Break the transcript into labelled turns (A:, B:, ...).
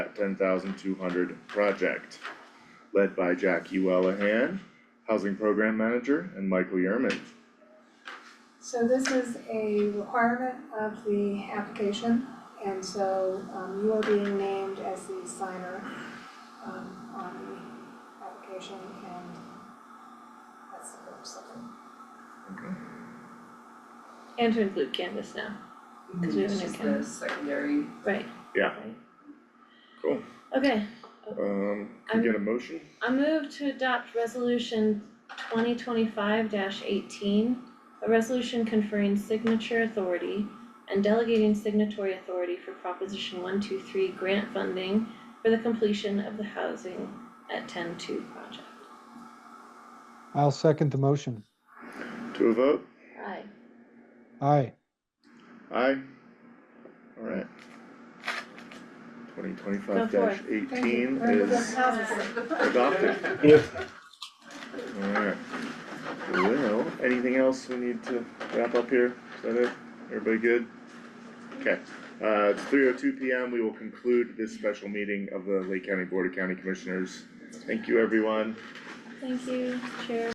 A: Habitat ten thousand two hundred project. Led by Jackie Wellahan, Housing Program Manager, and Michael Yerman.
B: So this is a requirement of the application, and so um you are being named as the signer um on the application and that's the purpose of it.
C: And to include Canvas now, Because we have a
D: Mm, It's
C: new
D: just
C: camera.
D: the secondary,
C: right?
A: Yeah.
C: Right.
A: Cool.
C: Okay,
A: Um, can we get a motion?
C: I move to adopt resolution twenty twenty-five eighteen, a resolution conferring signature authority and delegating signatory authority for Proposition one two three grant funding for the completion of the housing at ten two project.
E: I'll second the motion.
A: To a vote?
C: Aye.
E: Aye,
A: Aye. Alright. Twenty
C: Go
A: twenty-five
C: for it.
B: Thank you.
A: eighteen
B: Remember those
A: is
B: houses.
A: adopted. Alright. Well, anything else we need to wrap up here? Is that it? Everybody good? Okay, uh, it's three oh two P M. We will conclude this special meeting of the Lake County Board of County Commissioners. Thank you, everyone.
C: Thank you, Chair.